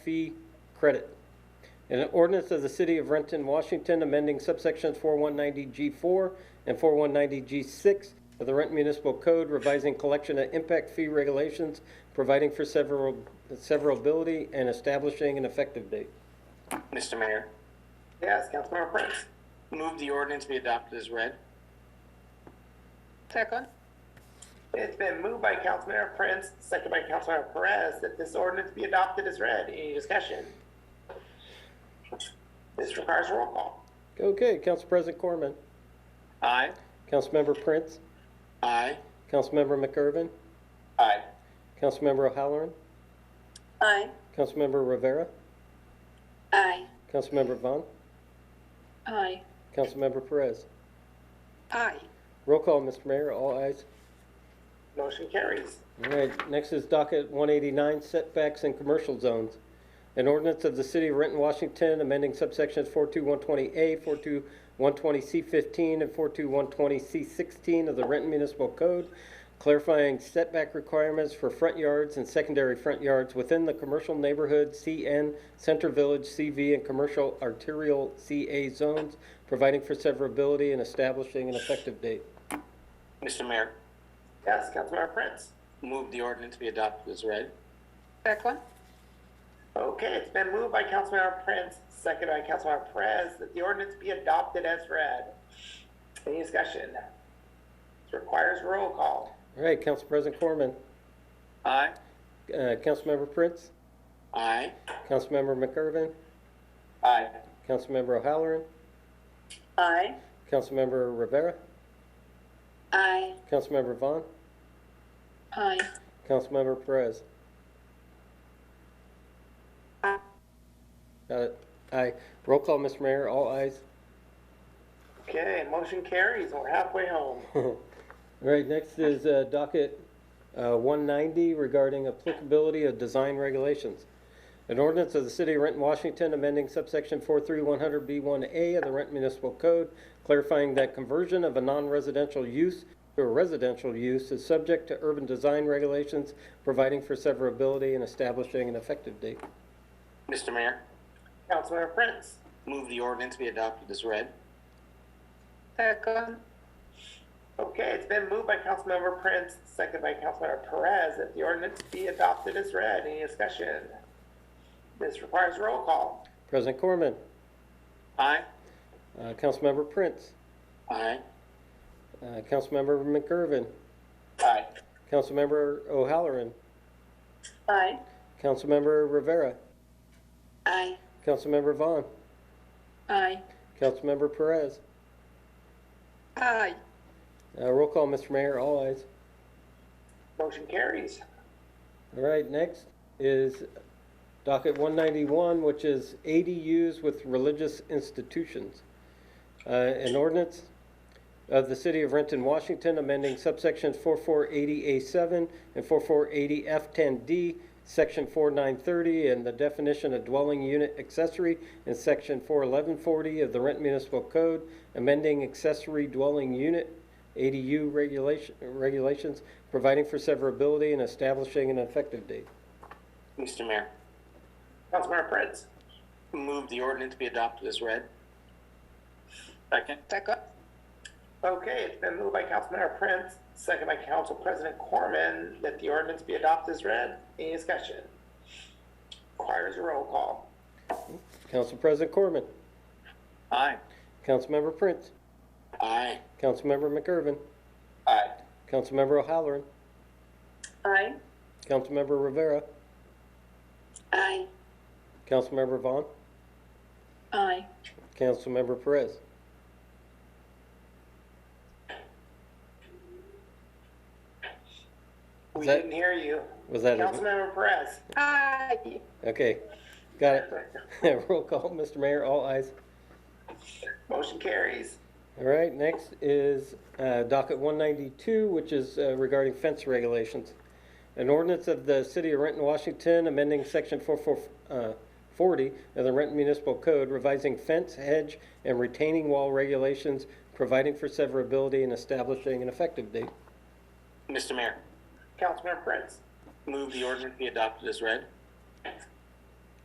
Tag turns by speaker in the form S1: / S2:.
S1: fee credit. An ordinance of the City of Renton, Washington, amending subsections 4190G4 and 4190G6 of the Renton Municipal Code, revising collection and impact fee regulations, providing for several severability, and establishing an effective date.
S2: Mr. Mayor.
S3: Yes, Councilmember Prince.
S2: Move the ordinance be adopted as read.
S4: Second.
S3: It's been moved by Councilmember Prince, second by Councilmember Perez, that this ordinance be adopted as read. Any discussion? This requires a roll call.
S1: Okay, Council President Corman.
S2: Aye.
S1: Councilmember Prince.
S2: Aye.
S1: Councilmember McIrvin.
S3: Aye.
S1: Councilmember O'Halloran.
S4: Aye.
S1: Councilmember Rivera.
S4: Aye.
S1: Councilmember Vaughn.
S4: Aye.
S1: Councilmember Perez.
S4: Aye.
S1: Roll call, Mr. Mayor, all ayes.
S3: Motion carries.
S1: All right, next is docket 189, setbacks in commercial zones. An ordinance of the City of Renton, Washington, amending subsections 42120A, 42120C15, and 42120C16 of the Renton Municipal Code, clarifying setback requirements for front yards and secondary front yards within the commercial neighborhood CN, Center Village CV, and commercial arterial CA zones, providing for severability and establishing an effective date.
S2: Mr. Mayor.
S3: Yes, Councilmember Prince.
S2: Move the ordinance be adopted as read.
S4: Second.
S3: Okay, it's been moved by Councilmember Prince, second by Councilmember Perez, that the ordinance be adopted as read. Any discussion? This requires a roll call.
S1: All right, Council President Corman,
S2: Aye.
S1: uh, Councilmember Prince?
S2: Aye.
S1: Councilmember McIrvin,
S3: Aye.
S1: Councilmember O'Halloran,
S4: Aye.
S1: Councilmember Rivera,
S4: Aye.
S1: Councilmember Vaughn,
S4: Aye.
S1: Councilmember Perez.
S4: Aye.
S1: Got it. Uh, Aye. Roll call, Mr. Mayor, all ayes.
S3: Okay, motion carries. We're halfway home.
S1: All right, next is uh, docket uh, 190 regarding applicability of design regulations. An ordinance of the City of Renton, Washington, amending subsection 43100B1A of the Renton Municipal Code, clarifying that conversion of a non-residential use to a residential use is subject to urban design regulations, providing for severability and establishing an effective date.
S2: Mr. Mayor.
S3: Councilmember Prince.
S2: Move the ordinance be adopted as read.
S4: Second.
S3: Okay, it's been moved by Councilmember Prince, second by Councilmember Perez, that the ordinance be adopted as read. Any discussion? This requires a roll call.
S1: President Corman,
S2: Aye.
S1: uh, Councilmember Prince,
S2: Aye.
S1: uh, Councilmember McGurven,
S3: Aye.
S1: Councilmember O'Halloran,
S4: Aye.
S1: Councilmember Rivera,
S4: Aye.
S1: Councilmember Vaughn,
S4: Aye.
S1: Councilmember Perez.
S4: Aye.
S1: Uh, roll call, Mr. Mayor, all ayes.
S3: Motion carries.
S1: All right, next is docket one ninety-one, which is ADUs with religious institutions. Uh, an ordinance of the City of Renton, Washington, amending subsections four-four eighty A seven and four-four eighty F ten D, section four-nine thirty, and the definition of dwelling unit accessory in section four-eleven forty of the Renton Municipal Code, amending accessory dwelling unit ADU regulation, regulations, providing for severability and establishing an effective date.
S2: Mr. Mayor.
S3: Councilmember Prince.
S2: Move the ordinance be adopted as read. Second.
S4: Second.
S3: Okay, it's been moved by Councilmember Prince, second by Council President Corman, that the ordinance be adopted as read. Any discussion? Requires a roll call.
S1: Council President Corman,
S2: Aye.
S1: Councilmember Prince,
S2: Aye.
S1: Councilmember McIrvin,
S3: Aye.
S1: Councilmember O'Halloran,
S4: Aye.
S1: Councilmember Rivera,
S4: Aye.
S1: Councilmember Vaughn,
S4: Aye.
S1: Councilmember Perez.
S3: We
S1: That-
S3: didn't hear you.
S1: Was that it?
S3: Councilmember Perez.
S4: Aye.
S1: Okay, got it. Roll call, Mr. Mayor, all ayes.
S3: Motion carries.
S1: All right, next is uh, docket 192, which is uh, regarding fence regulations. An ordinance of the City of Renton, Washington, amending Section 4440 of the Renton Municipal Code, revising fence, hedge, and retaining wall regulations, providing for severability and establishing an effective date.
S2: Mr. Mayor.
S3: Councilmember Prince.
S2: Move the ordinance be adopted as read.